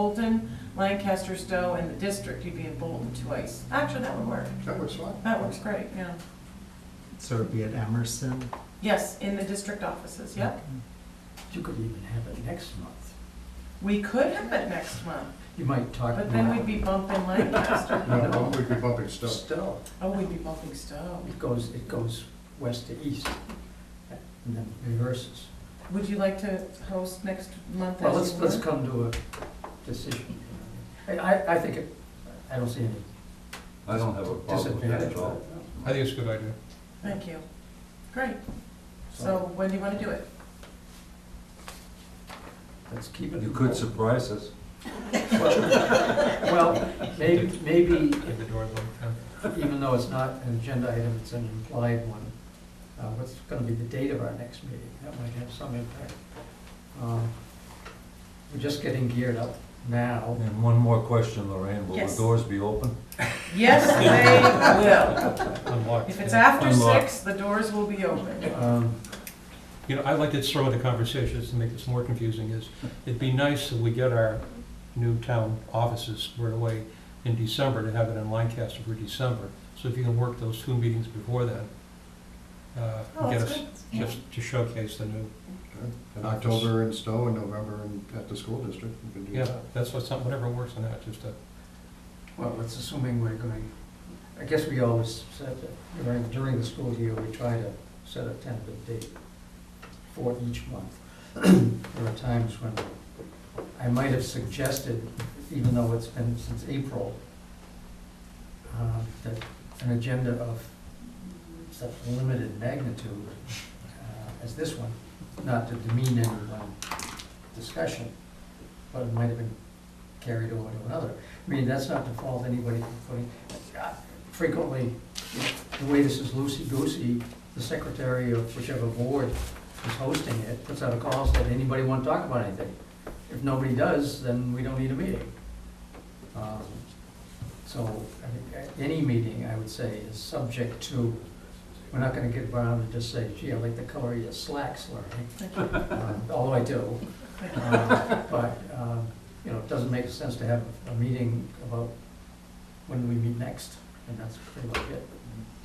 Bolton, Lancaster, Stowe, and the district, you'd be in Bolton twice. Actually, that would work. That works fine. That works great, yeah. So it'd be at Emerson? Yes, in the district offices, yep. You could even have it next month. We could have it next month, You might talk. but then now. we'd be bumping Lancaster. No, no, we'd be bumping stuff. Still, Oh, we'd be bumping Stowe. it goes, it goes west to east, and then reverses. Would you like to host next month Well, as let's, you let's were? come to a decision. I, I, I think it, I don't see any I don't have a problem with that disadvantage. at all. I think it's a good idea. Thank you. Great. So when do you want to do it? Let's keep it. You could surprise us. Well, maybe, maybe the doors even though it's not an agenda item, it's an implied one. Uh, What's going to be the date of our next meeting? That might have some impact. Um, We're just getting geared up now. And one more question, Lorraine, will the Yes. doors be open? Yes, they will. Unlocked. If it's after Unlock. six, the doors will be open. Um, You know, I like to throw into conversations to make this more confusing is, it'd be nice if we get our new town offices squared away in December to have it in Lancaster for December. So if you can work those two meetings before then, uh, Oh, get that's us, good. just to showcase the new, In October in Stowe and November in, at the school district, we can do yeah, that. that's what, some- whatever works on that, just to Well, that's assuming we're going, I guess we always set, that during, during the school year, we try to set a tentative date for each month. There are times when I might have suggested, even though it's been since April, uh, that an agenda of such limited magnitude uh, as this one, not to demean any one discussion, but it might have been carried over to another. I mean, that's not to fault anybody for putting, uh, frequently, the way this is loosey-goosey, the secretary of whichever board is hosting it puts out a call saying, anybody want to talk about anything? If nobody does, then we don't need a meeting. Um, So, I mean, a- any meeting, I would say, is subject to, we're not gonna get around and just say, gee, I like the color of your slacks, Larry, Thank you. Um, although I do. Thank you. Uh, But, um, you know, it doesn't make sense to have a meeting about when we meet next, and that's pretty much it.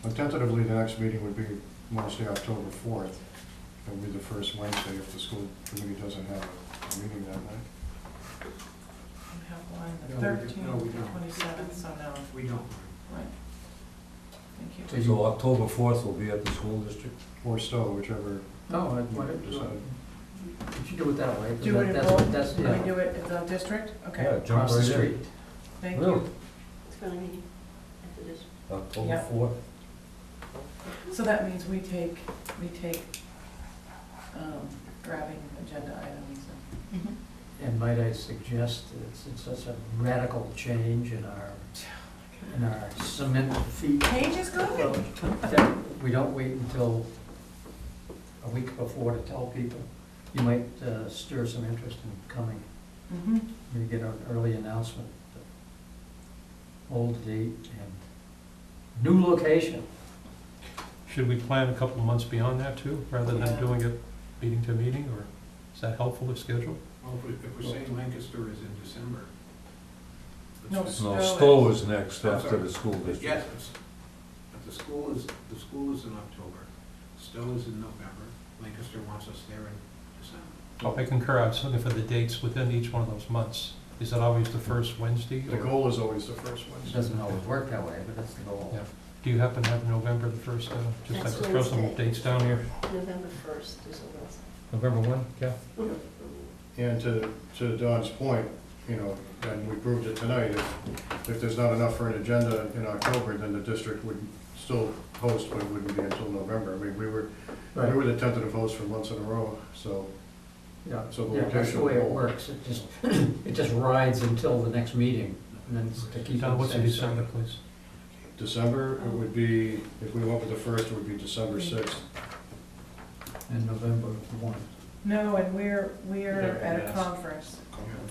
Well, Tentatively, the next meeting would be Wednesday, October fourth. It'll be the first Wednesday if the school committee doesn't have a meeting that night. We have one, the No, we don't. thirteenth, No, we the don't. twenty-seventh, so no, We don't. right. Thank So you. you- So October fourth will be at the school district? Or Stowe, whichever. No, I- why don't you, Decide. if you do it that way, 'cause Do it that- in that's, Bolton, that's, do we yeah, do it at the district? Yeah, Okay, jump across the right in. street. thank Really? you. It's gonna be after this. October Yeah. fourth? So that means we take, we take, um, grabbing agenda items and. And might I suggest, that it's, it's such a radical change in our, in our cement feet Paige is good. that we don't wait until a week before to tell people. You might uh, stir some interest in coming, Mm-hmm. maybe get an early announcement. Old date and new location. Should we plan a couple of months beyond that too, rather Yeah. than doing it meeting to meeting, or is that helpful to schedule? Well, if we- if we're saying Lancaster is in December. let's No, just- No, Stowe Stowe is next I'm after sorry. the school district. Yes, it's- but the school is, the school is in October, Stowe is in November, Lancaster wants us there in December. I concur, I was looking for the dates within each one of those months. Is that always the first Wednesday? The or- goal is always the first It Wednesday. doesn't always work that way, but that's the goal. Yeah. Do you happen to have November the first, uh, just have That's to throw some Wednesday. dates down here? November first is a Wednesday. November one, yeah. And to, to Don's point, you know, and we proved it tonight, if, if there's not enough for an agenda in October, then the district would still host, but it wouldn't be until November. I mean, we were, we Right. were the tentative host for months in a row, so. Yeah, So the Yeah, that's the location way it will- works. It just, it just rides until the next meeting and then it's to keep. it Don, what's in safe. December, please? December, it would be, if we went with the first, it would be December sixth. And November one. No, and we're, we're Yeah, at a yes. conference,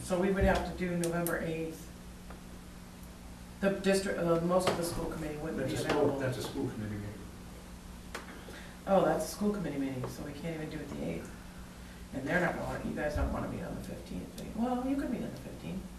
so we would have to do November eighth. The district, uh, most of the school committee wouldn't That's be a school, available. that's a school committee meeting. Oh, that's a school committee meeting, so we can't even do it the eighth. And they're not going, you guys don't wanna meet on the fifteenth. Well, you could meet on the fifteenth.